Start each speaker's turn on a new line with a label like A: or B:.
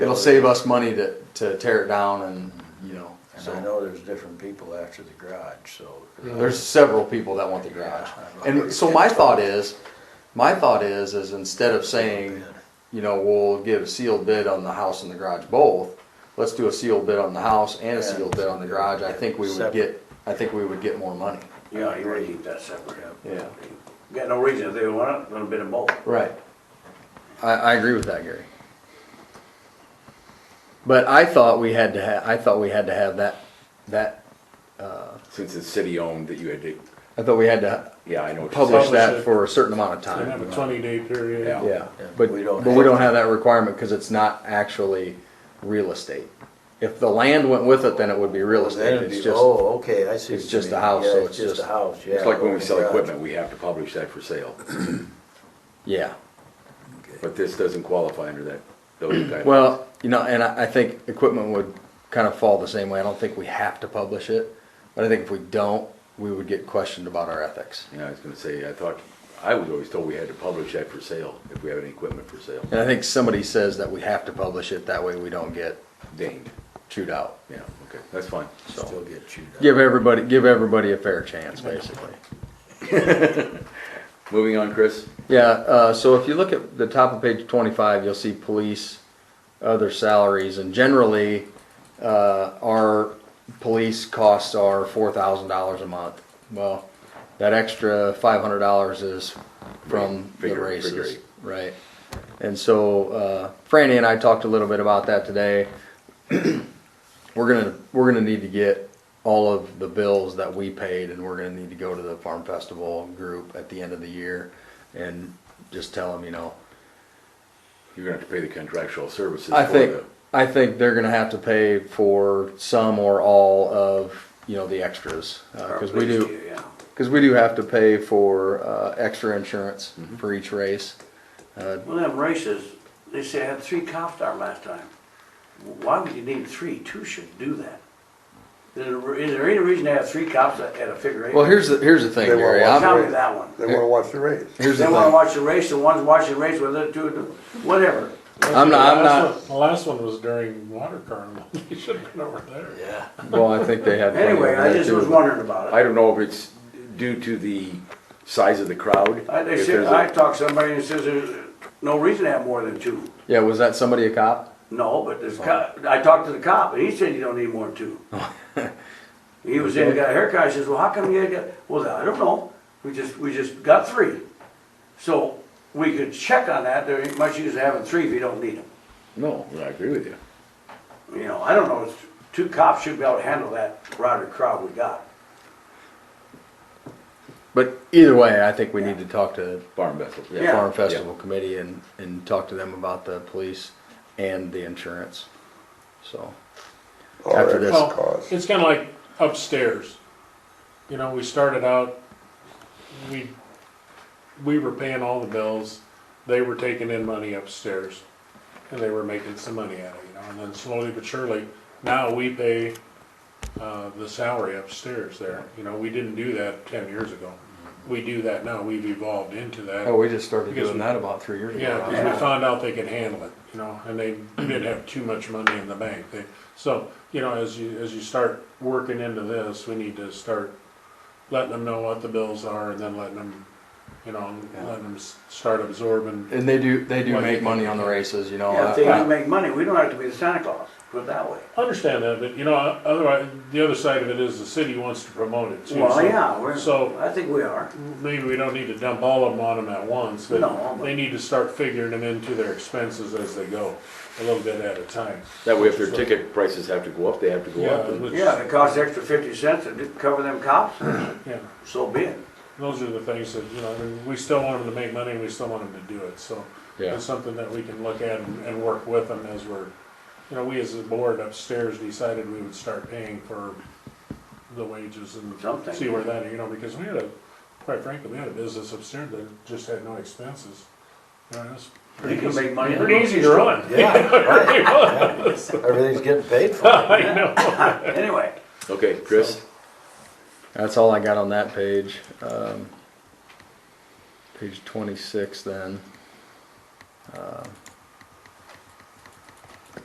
A: It'll save us money to, to tear it down and, you know,
B: And I
A: so.
B: know there's different people after the garage, so.
A: There's several people that want the garage. And so my thought is, my thought is, is instead of saying, you know, we'll give a sealed bid on the house and the garage both, let's do a sealed bid on the house and a sealed bid on the garage. I think we would get, I think we would get more money.
C: Yeah, you really keep that separate.
A: Yeah.
C: Got no reason, if they want it, a little bit of both.
A: Right. I, I agree with that, Gary. But I thought we had to ha, I thought we had to have that, that,
D: Since it's city owned that you had to,
A: I thought we had to
D: yeah, I know. what you're saying.
A: publish that
E: it.
A: for a certain amount of
E: They
A: time.
E: have a twenty day period.
D: Yeah.
A: Yeah, but,
B: We
A: but
B: don't
A: we don't have
B: have-
A: that requirement because it's not actually real estate. If the land went with it, then it would be real estate,
B: Then
A: it's
B: it'd be,
A: just,
B: oh, okay, I see.
A: it's
B: what you
A: just a
B: mean.
A: house,
B: Yeah,
A: so it's
B: it's just a
A: just-
B: house, yeah.
D: It's like when we
B: the
D: sell
B: garage.
D: equipment, we have to publish that for sale,
A: yeah.
D: but this doesn't qualify under that, those guidelines.
A: Well, you know, and I, I think equipment would kind of fall the same way, I don't think we have to publish it, but I think if we don't, we would get questioned about our ethics.
D: Yeah, I was gonna say, I thought, I was always told we had to publish that for sale, if we have any equipment for sale,
A: And I think somebody says that we have to publish it, that way we don't get
D: dinged,
A: chewed out,
D: yeah, okay, that's fine.
B: Still get chewed up.
A: give everybody, give everybody a fair chance, basically.
D: Moving on, Chris,
A: Yeah, uh, so if you look at the top of page twenty-five, you'll see police, other salaries, and generally, uh, our police costs are four thousand dollars a month. Well, that extra five hundred dollars is from the
D: Figure- figure
A: races,
D: eight.
A: right? And so, uh, Franny and I talked a little bit about that today. We're gonna, we're gonna need to get all of the bills that we paid and we're gonna need to go to the farm festival group at the end of the year and just tell them, you know,
D: you're gonna have to pay the contractual services for
A: I think,
D: the,
A: I think they're gonna have to pay for some or all of, you know, the extras. Uh, cause we do,
C: Yeah.
A: cause we do have to pay for, uh, extra insurance for each race.
C: Well, them races, they say I had three cops there last time. Why would you need three? Two should do that. Is there- is there any reason to have three cops at at a figure eight?
A: Well, here's the, here's the thing,
F: They won't
A: Gary.
F: watch
A: I'm-
C: Tell
F: it.
C: me that one.
F: They wanna watch the race.
A: Here's the
C: They wanna
A: thing.
C: watch the race, and one's watching the race with the two, whatever.
A: I'm not- I'm
E: The last
A: not-
E: one- The last one was during water carnival, you should have been over there.
B: Yeah.
A: Well, I think they have. plenty
C: Anyway,
A: over
C: I
A: there,
C: just
A: too,
C: was
A: but-
C: wondering about
D: I
C: it.
D: don't know if it's due to the size of the crowd.
C: I, they
D: if
C: said,
D: there's a-
C: I talked to somebody and says there's no reason to have more than two.
A: Yeah, was that somebody a cop?
C: No, but there's, co- I talked to the cop, and he said you don't need more than two. He was in, got a haircut, I says, well, how come you got, well, I don't know, we just, we just got three. So, we could check on that, there ain't much use having three if you don't need them.
D: No, I agree with you.
C: You know, I don't know, it's- two cops should be able to handle that router crowd we got.
A: But either way, I think we need to talk to
D: Farm vessel,
A: the
C: Yeah.
D: yeah,
A: Farm Festival Committee and, and talk to them about the police and the insurance. So, After
F: Our
A: this.
F: extra
E: Well,
F: cost.
E: it's kinda like upstairs, you know, we started out, we, we were paying all the bills, they were taking in money upstairs, and they were making some money out of it, you know, and then slowly but surely, now we pay, uh, the salary upstairs there, you know, we didn't do that ten years ago. We do that now, we've evolved into that.
A: oh, we just started
E: Because
A: doing
E: we-
A: that about three years
E: Yeah,
A: ago.
E: 'cause we found out they could handle it, you know, and they didn't have too much money in the bank. They, so, you know, as you, as you start working into this, we need to start letting them know what the bills are and then letting them, you know, letting them s- start absorbing.
A: And they do, they do
E: Well,
A: make
E: you-
A: money on the races, you know.
C: Yeah, if
A: Oh, I-
C: they
A: I-
C: do make money, we don't have to be the Santa Claus, put it that way.
E: I Understand that, but you know, otherwise, the other side of it is the city wants to promote it too.
C: Well,
E: so-
C: yeah, we're,
E: So
C: I think we are.
E: maybe we don't need to dump all of them on them at once,
C: No,
E: but
C: but-
E: they need to start figuring them into their expenses as they go, a little bit at a time.
D: That way if their ticket prices have to go up, they have to go
E: Yeah,
D: up. and-
E: which-
C: Yeah, if it costs extra fifty cents to cover them cops,
E: yeah.
C: so be it.
E: Those are the things that, you know, I mean, we still want them to make money, and we still want them to do it, so.
A: Yeah.
E: It's something that we can look at and, and work with them as we're, you know, we as a board upstairs decided we would start paying for the wages and
C: Something.
E: see where that, you know, because we had a, quite frankly, we had a business upstairs that just had no expenses. You know, it's
C: They
E: pretty
C: can
E: easy,
C: make money.
E: pretty easy to run.
B: Yeah,
E: Pretty much.
B: everything's getting paid for.
E: I know.
C: Anyway,
D: Okay, Chris?
A: That's all I got on that page. Um, page twenty-six then. Um,